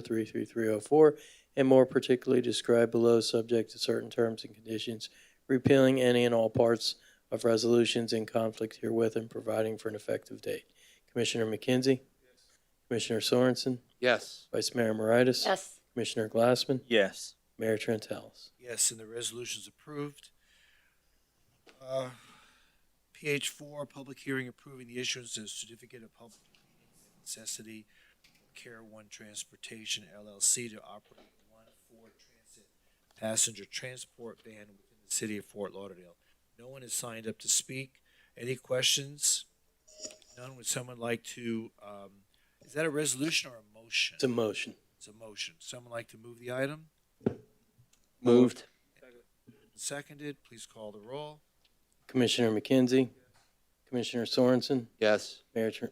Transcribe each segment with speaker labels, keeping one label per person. Speaker 1: 33304, and more particularly described below, subject to certain terms and conditions, repealing any and all parts of resolutions in conflict herewith and providing for an effective date. Commissioner McKenzie? Commissioner Sorensen?
Speaker 2: Yes.
Speaker 1: Vice Mayor Moritas?
Speaker 3: yes,
Speaker 1: Commissioner Glassman?
Speaker 4: Yes.
Speaker 1: Mayor Trentalis?
Speaker 5: Yes, and the resolution's approved. Uh, PH four, public hearing approving the issuance of certificate of public necessity, Care One Transportation LLC to operate one Ford Transit passenger transport van within the city of Fort Lauderdale. No one has signed up to speak. Any questions? None. Would someone like to, um, is that a resolution or a motion?
Speaker 1: It's a motion.
Speaker 5: It's a motion. Someone like to move the item?
Speaker 2: Moved.
Speaker 5: Seconded, please call the roll.
Speaker 1: Commissioner McKenzie? Commissioner Sorensen?
Speaker 2: Yes.
Speaker 1: Mayor Tr-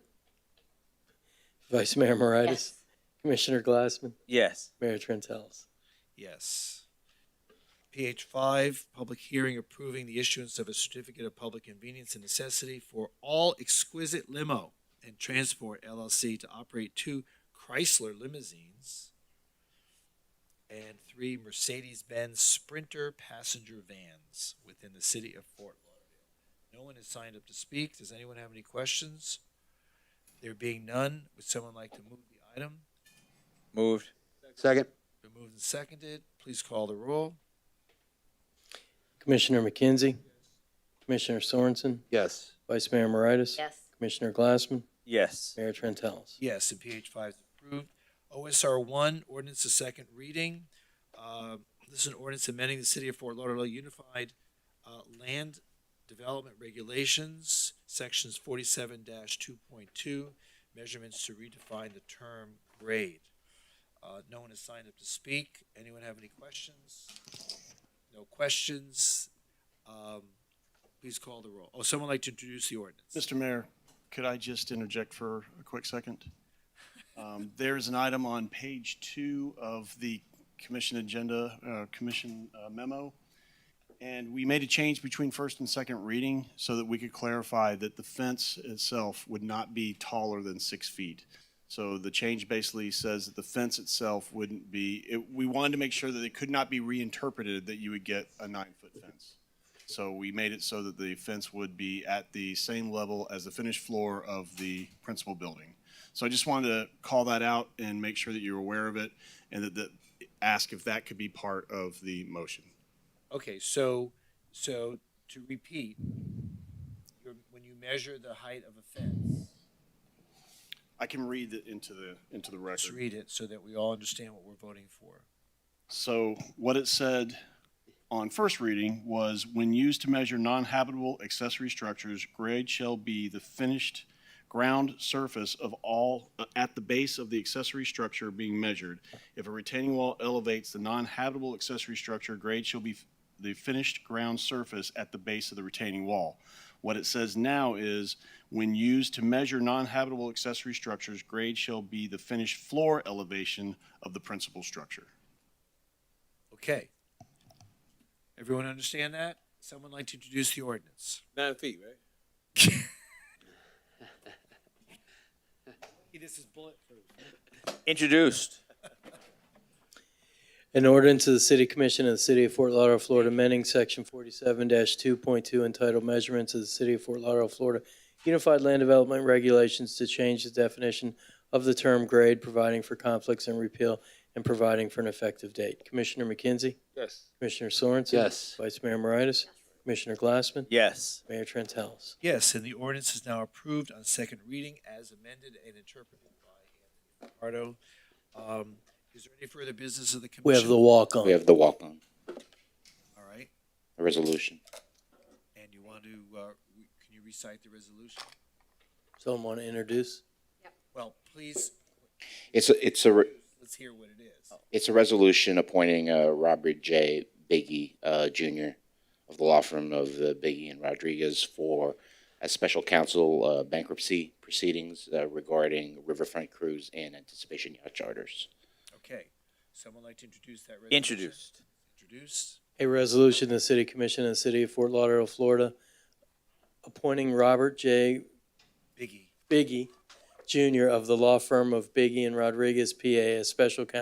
Speaker 1: Vice Mayor Moritas?
Speaker 3: yes,
Speaker 1: Commissioner Glassman?
Speaker 4: Yes.
Speaker 1: Mayor Trentalis?
Speaker 5: Yes. PH five, public hearing approving the issuance of a certificate of public convenience and necessity for All Exquisite Limo and Transport LLC to operate two Chrysler limousines and three Mercedes-Benz Sprinter passenger vans within the city of Fort Lauderdale. No one has signed up to speak. Does anyone have any questions? There being none, would someone like to move the item?
Speaker 4: Moved.
Speaker 2: Second.
Speaker 5: Been moved and seconded. Please call the roll.
Speaker 1: Commissioner McKenzie? Commissioner Sorensen?
Speaker 2: Yes.
Speaker 1: Vice Mayor Moritas?
Speaker 3: yes,
Speaker 1: Commissioner Glassman?
Speaker 4: Yes.
Speaker 1: Mayor Trentalis?
Speaker 5: Yes, and PH five is approved. OSR one, ordinance to second reading. Uh, This is an ordinance amending the City of Fort Lauderdale Unified uh, Land Development Regulations, Sections forty-seven two point two, measurements to redefine the term grade. Uh, No one has signed up to speak. Anyone have any questions? No questions? Um, Please call the roll. Oh, someone like to introduce the ordinance?
Speaker 6: Mr. Mayor, could I just interject for a quick second? Um, There is an item on page two of the commission agenda, uh, commission uh, memo, and we made a change between first and second reading so that we could clarify that the fence itself would not be taller than six feet. So the change basically says that the fence itself wouldn't be, it- we wanted to make sure that it could not be reinterpreted that you would get a nine-foot fence. So we made it so that the fence would be at the same level as the finished floor of the principal building. So I just wanted to call that out and make sure that you're aware of it and that, that, ask if that could be part of the motion.
Speaker 5: Okay, so, so to repeat, you're, when you measure the height of a fence,
Speaker 6: I can read it into the, into the
Speaker 5: let's
Speaker 6: record.
Speaker 5: read it so that we all understand what we're voting for.
Speaker 6: So what it said on first reading was, when used to measure non-habitable accessory structures, grade shall be the finished ground surface of all, at the base of the accessory structure being measured. If a retaining wall elevates the non-habitable accessory structure, grade shall be the finished ground surface at the base of the retaining wall. What it says now is, when used to measure non-habitable accessory structures, grade shall be the finished floor elevation of the principal structure.
Speaker 5: Okay. Everyone understand that? Someone like to introduce the ordinance?
Speaker 2: Nine feet, right?
Speaker 5: This is bulletproof.
Speaker 4: Introduced.
Speaker 1: An ordinance of the City Commission of the City of Fort Lauderdale, Florida, amending Section 47-2.2 entitled Measurements of the City of Fort Lauderdale, Florida Unified Land Development Regulations to change the definition of the term grade, providing for conflicts and repeal, and providing for an effective date. Commissioner McKenzie?
Speaker 2: Yes.
Speaker 1: Commissioner Sorensen?
Speaker 2: Yes.
Speaker 1: Vice Mayor Moritas? Commissioner Glassman?
Speaker 4: Yes.
Speaker 1: Mayor Trentalis?
Speaker 5: Yes, and the ordinance is now approved on second reading as amended and interpreted by Anthony Fajardo. Um, is there any further business of the commission?
Speaker 1: We have the walk on.
Speaker 7: We have the walk-on,
Speaker 5: All right,
Speaker 7: the resolution.
Speaker 5: and you want to, uh, re- can you recite the resolution?
Speaker 1: Someone want to introduce?
Speaker 5: Well, please,
Speaker 7: It's, a it's a, re-
Speaker 5: let's hear what it is.
Speaker 7: it's a resolution appointing uh, Robert J. Biggie uh, Jr. of the law firm of uh, Biggie and Rodriguez for a special counsel uh, bankruptcy proceedings uh, regarding Riverfront Cruise and Anticipation Yacht Charters.
Speaker 5: Okay, someone like to introduce that resolution?
Speaker 4: Introduced.
Speaker 5: Introduce.
Speaker 1: A resolution, of the City Commission of the City of Fort Lauderdale, Florida, appointing Robert J.
Speaker 5: Biggie.
Speaker 1: Biggie Jr. of the law firm of Biggie and Rodriguez, PA, as special counsel